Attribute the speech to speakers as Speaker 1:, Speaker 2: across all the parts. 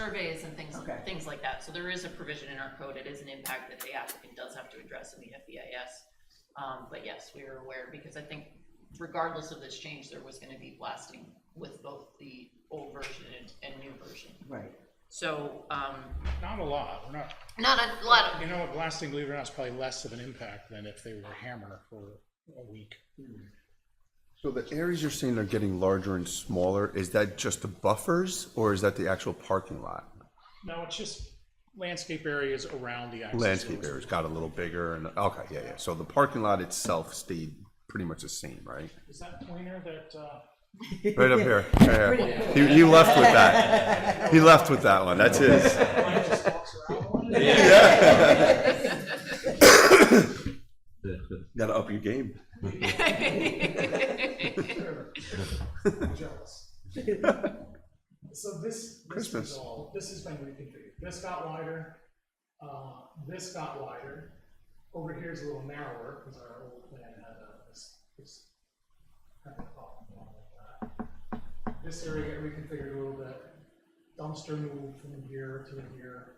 Speaker 1: surveys and things,
Speaker 2: Okay.
Speaker 1: things like that. So there is a provision in our code, it is an impact that the applicant does have to address in the FEIS. Um, but yes, we are aware, because I think regardless of this change, there was gonna be blasting with both the old version and, and new version.
Speaker 2: Right.
Speaker 1: So, um,
Speaker 3: Not a lot, we're not,
Speaker 1: not a lot of,
Speaker 3: you know, what, blasting, believe it or not, is probably less of an impact than if they were a hammer for a week.
Speaker 4: So the areas you're saying are getting larger and smaller, is that just the buffers or is that the actual parking lot?
Speaker 3: No, it's just landscape areas around the access.
Speaker 4: Landscape
Speaker 3: roads.
Speaker 4: areas got a little bigger and, okay, yeah, yeah. So the parking lot itself stayed pretty much the same, right?
Speaker 3: Is that pointer that, uh,
Speaker 4: Right up here. Yeah, yeah. He, he left with that. He left with that one. That's his.
Speaker 3: line just walks around?
Speaker 4: Gotta up your game.
Speaker 3: Jealous. So this, this
Speaker 4: Christmas.
Speaker 3: is all, this has been reconfigured. This got wider, uh, this got wider. Over here is a little narrower, because our old plan had uh, this, this kind of top and all like that. This area got reconfigured a little bit. Dumpster moved from here to in here.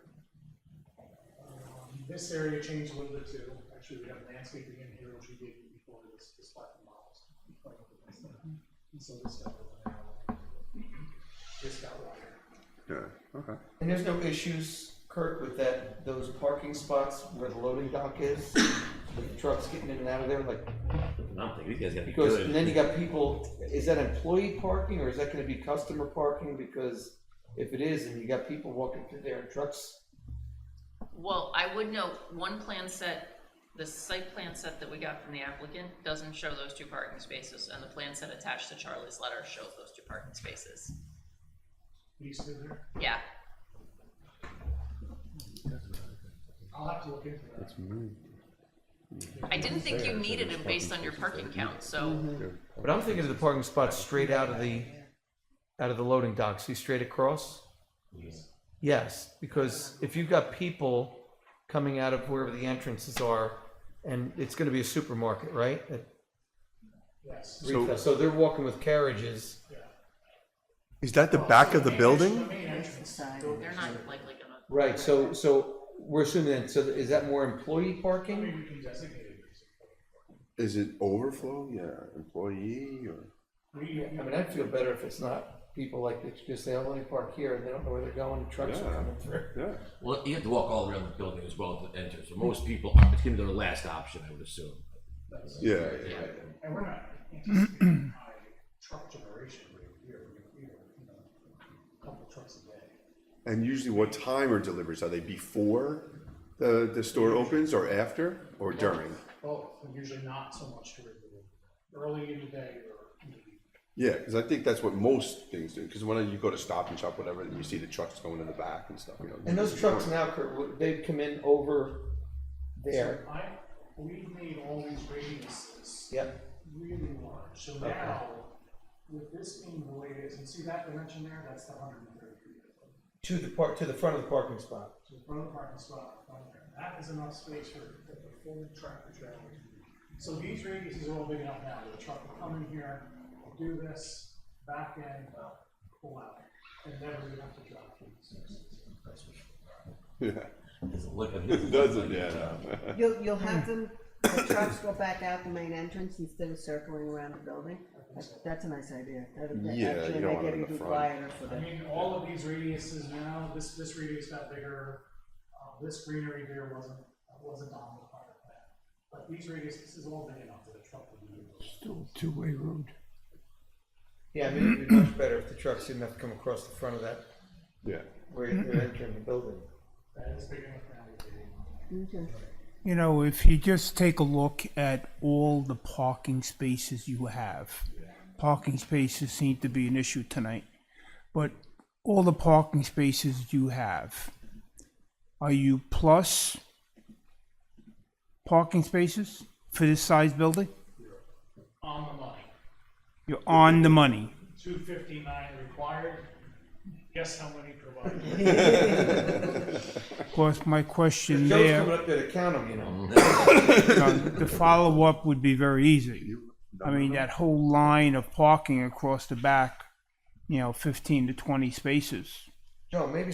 Speaker 3: Um, This area changed a little bit too. Actually, we have landscaping in here, which we did before this, this parking lot was. And so this got a little narrower. This got wider.
Speaker 4: Yeah, okay.
Speaker 5: And there's no issues, Kurt, with that, those parking spots where the loading dock is, with trucks getting in and out of there, like,
Speaker 6: I don't think these guys got
Speaker 5: because,
Speaker 6: good.
Speaker 5: and then you got people, is that employee parking, or is that gonna be customer parking? Because if it is, and you got people walking through there and trucks,
Speaker 1: well, I would note, one plan set, the site plan set that we got from the applicant doesn't show those two parking spaces, and the plan set attached to Charlie's letter shows those two parking spaces.
Speaker 3: These two there.
Speaker 1: Yeah,
Speaker 3: I'll have to look into that.
Speaker 1: I didn't think you needed them based on your parking count, so,
Speaker 5: but I'm thinking of the parking spots straight out of the, out of the loading dock, see straight across? Yes, because if you've got people coming out of wherever the entrances are, and it's gonna be a supermarket, right?
Speaker 3: Yes.
Speaker 5: So, so they're walking with carriages.
Speaker 4: Is that the back of the building?
Speaker 3: Main entrance.
Speaker 1: they're not likely gonna.
Speaker 5: Right, so, so we're assuming that, so is that more employee
Speaker 3: I
Speaker 5: parking?
Speaker 3: mean, we can designate it.
Speaker 4: Is it overflow? Yeah, employee or?
Speaker 3: We,
Speaker 5: I mean, I'd feel better if it's not people like, that just say, I'll only park here, and they don't know where they're going, trucks are coming through.
Speaker 4: Yeah.
Speaker 6: Well, you have to walk all around the building as well to enter, so most people, it's gonna be their last option, I would assume.
Speaker 4: Yeah.
Speaker 3: and we're not anticipating high truck generation rate here, we're gonna, you know, you know, a couple trucks a day.
Speaker 4: And usually what time are deliveries? Are they before the, the store opens or after or during?
Speaker 3: Both, Oh, and usually not so much during the day, early in the day or in the evening.
Speaker 4: Yeah, because I think that's what most things do. Because when you go to Stop and Shop, whatever, you see the trucks going in the back and stuff. You know.
Speaker 5: And those trucks now, Kurt, would- they'd come in over there,
Speaker 3: So I, we made all these radiuses
Speaker 5: yep.
Speaker 3: really large, so now, with this being the way it is, and see that dimension there, that's the hundred and thirty feet.
Speaker 5: To the park, to the front of the parking spot.
Speaker 3: So front of the parking spot, front there, that is enough space for the full tractor trailer. to be. So these radiuses are all big enough now, the truck will come in here, do this, back in, pull out, and never even have to drive through the spaces.
Speaker 4: Yeah.
Speaker 6: Doesn't look.
Speaker 4: It doesn't, yeah. no.
Speaker 7: You'll, you'll have them, the trucks go back out the main entrance instead of circling around the building. That's, that's a nice idea. That'd be-
Speaker 4: Yeah, you
Speaker 7: actually make
Speaker 4: don't want
Speaker 7: it
Speaker 4: them
Speaker 7: even
Speaker 4: in the front.
Speaker 7: quieter for
Speaker 3: I
Speaker 7: them.
Speaker 3: mean, all of these radiuses now, this, this radius got bigger, uh, this greenery here wasn't, wasn't on the part of that. But these radius, this is all big enough that a truck would be.
Speaker 5: Yeah, I mean, it'd be much better if the trucks didn't have to come across the front of that,
Speaker 4: Yeah.
Speaker 5: where you're entering the building.
Speaker 3: That is big enough now, it's big enough.
Speaker 7: Okay.
Speaker 8: You know, if you just take a look at all the parking spaces you have, parking spaces seem to be an issue tonight. But all the parking spaces you have, are you plus parking spaces for this size building?
Speaker 3: on the money.
Speaker 8: You're on the money.
Speaker 3: two fifty-nine required. Guess how many provided?
Speaker 8: Of course, my question
Speaker 5: Joe's coming
Speaker 8: there,
Speaker 5: up there to count them, you know.
Speaker 8: uh, the follow-up would be very easy. I mean, that whole line of parking across the back, you know, 15 to 20 spaces.
Speaker 5: Joe, maybe